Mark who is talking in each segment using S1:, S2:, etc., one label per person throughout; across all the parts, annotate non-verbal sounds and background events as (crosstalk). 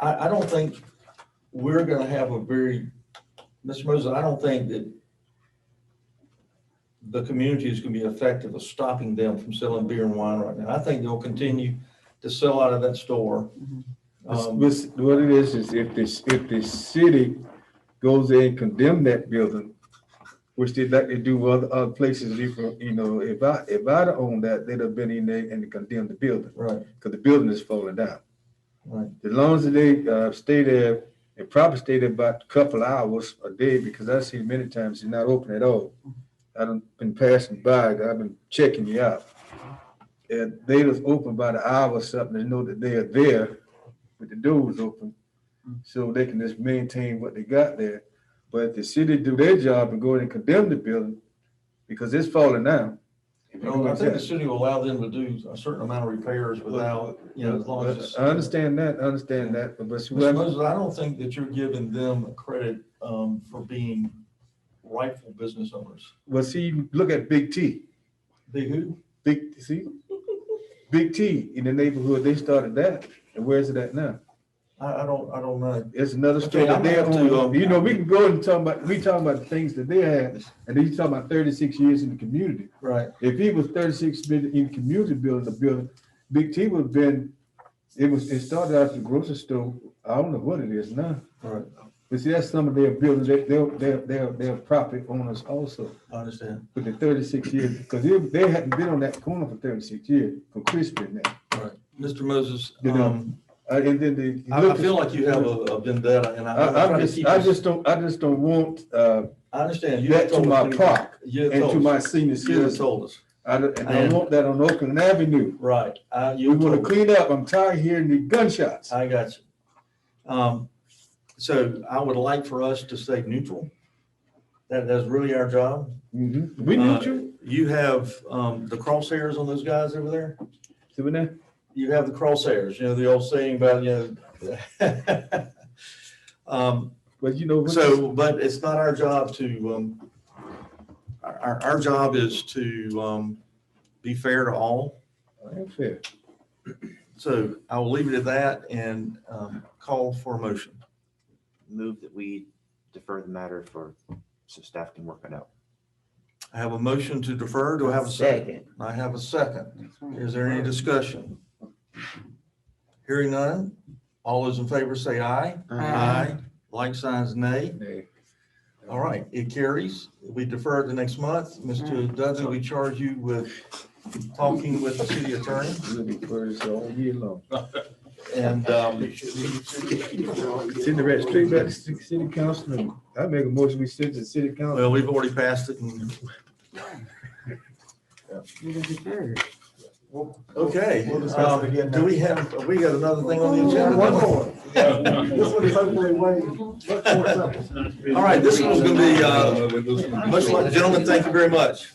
S1: I, I don't think we're gonna have a very, Mr. Moses, I don't think that the community is gonna be effective of stopping them from selling beer and wine right now. I think they'll continue to sell out of that store.
S2: This-
S1: Um,
S2: this- What it is, is if this, if the city goes in and condemn that building, which they'd like to do with other, other places, you know, you know, if I, if I'd have owned that, they'd have been in there and condemned the building,
S1: Right,
S2: because the building is falling down.
S1: right.
S2: As long as they, uh, stay there, and probably stay there about a couple hours a day, because I've seen many times it's not open at all. I done been passing by, I've been checking you out. And they was open about an hour or something, they know that they are there, but the doors open. So they can just maintain what they got there. But if the city do their job and go in and condemn the building, because it's falling down.
S1: No, I think the city will allow them to do a certain amount of repairs without, you know, as long as. it's-
S2: I understand that, I understand that, but. but
S1: Mr. Moses, I don't think that you're giving them credit, um, for being rightful business owners.
S2: Well, see, you look at Big T,
S1: They who?
S2: Big, see? Big T in the neighborhood, they started that, and where's it at now?
S1: I, I don't, I don't know.
S2: It's another
S1: Okay,
S2: story
S1: I'm
S2: that they
S1: gonna have to,
S2: own,
S1: um,
S2: you know, we can go and talk about, we talking about the things that they had, and then you talking about thirty-six years in the community.
S1: Right.
S2: If he was thirty-six been in the community building, the building, Big T would have been, it was, it started out as a grocery store, I don't know what it is now.
S1: Right.
S2: But see, that's some of their buildings, they, they're, they're, they're, they're property owners also.
S1: I understand.
S2: with the thirty-six years, because they, they hadn't been on that corner for thirty-six years, for Crispin now.
S1: Right. Mr. Moses,
S2: You know,
S1: um,
S2: Uh, and then the.
S1: I, I feel like you have a a vendetta and I-
S2: I,
S1: I'm
S2: I
S1: trying to
S2: just,
S1: keep
S2: I
S1: this-
S2: just don't, I just don't want, uh,
S1: I understand. You
S2: that to
S1: told us
S2: my
S1: many-
S2: park
S1: You
S2: and to
S1: told
S2: my
S1: us.
S2: senior
S1: You had
S2: citizens.
S1: told us.
S2: I don't, and I
S1: And-
S2: want that on Oakland Avenue.
S1: Right. I,
S2: We
S1: you
S2: wanna
S1: told us. Uh,
S2: clean up, I'm tired of hearing the gunshots.
S1: I got you. Um, so I would like for us to stay neutral. That, that's really our job.
S2: Mhm. We
S1: Uh,
S2: need you,
S1: You have, um, the crosshairs on those guys over there?
S2: see what now?
S1: you have the crosshairs, you know, the old saying about, you know. (laughs) Um,
S2: But you know. what-
S1: so, but it's not our job to, um, our, our, our job is to, um, be fair to all.
S2: That's fair.
S1: So I will leave it at that and, um, call for a motion.
S3: Move that we defer the matter for, so staff can work it out.
S1: I have a motion to defer. Do I have a second? I have a second. Is there any discussion? Hearing none. All those in favor say aye.
S4: Aye.
S1: Like signs nay.
S2: Nay.
S1: All right, it carries. We defer it to next month. Mr. Dudley, we charge you with talking with the city attorney
S2: We'll be first all year long.
S1: and, um,
S2: Send the rest straight back to the city council, I make a motion, we send to the city council.
S1: well, we've already passed it and, okay.
S5: We'll discuss it again
S1: um,
S5: next-
S1: Do we have, we got another thing on the agenda?
S5: One more. This one is hopefully way, much more simple.
S1: All right, this one's gonna be, uh, much like, gentlemen, thank you very much.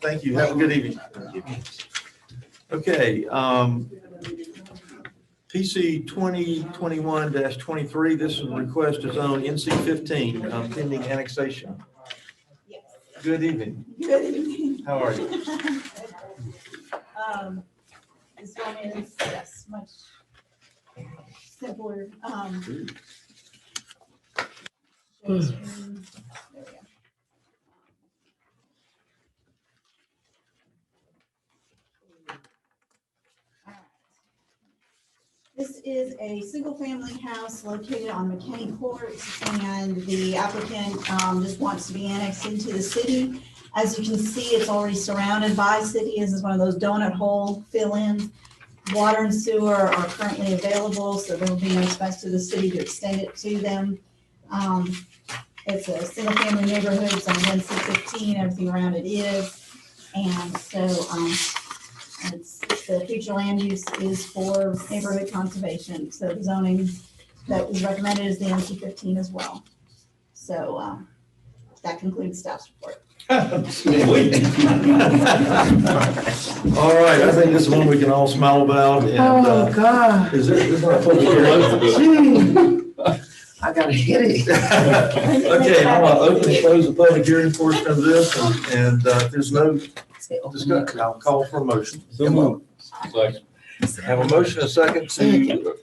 S1: Thank you. Have a good evening. Okay, um, PC twenty twenty-one twenty-three, this is a request to zone NC fifteen, um, pending annexation. Good evening.
S6: Good evening.
S1: How are you?
S6: Um, This one is, yes, much simpler. um, goes through- there we go. Alright. This is a single-family house located on McKinney Court, and the applicant um, just wants to be annexed into the city. As you can see, it's already surrounded by city. This is one of those donut hole fill-ins. Water and sewer are currently available, so there will be no expense to the city to extend it to them. Um, It's a single-family neighborhood, it's on one six fifteen, everything around it is. And so, um, it's, the future land use is for neighborhood conservation, so the zoning that was recommended is the NC fifteen as well. So, um, that concludes staff's report.
S1: (laughs) All right, I think this is one we can all smile about and, uh,
S4: God.
S1: is there, is there a public hearing?
S4: I got a
S1: (laughs)
S4: headache.
S1: Okay, I'm gonna open and close the public hearing portion of this, and- and uh, if there's no discussion, I'll call for a motion.
S2: So move.
S1: Have a motion, a second to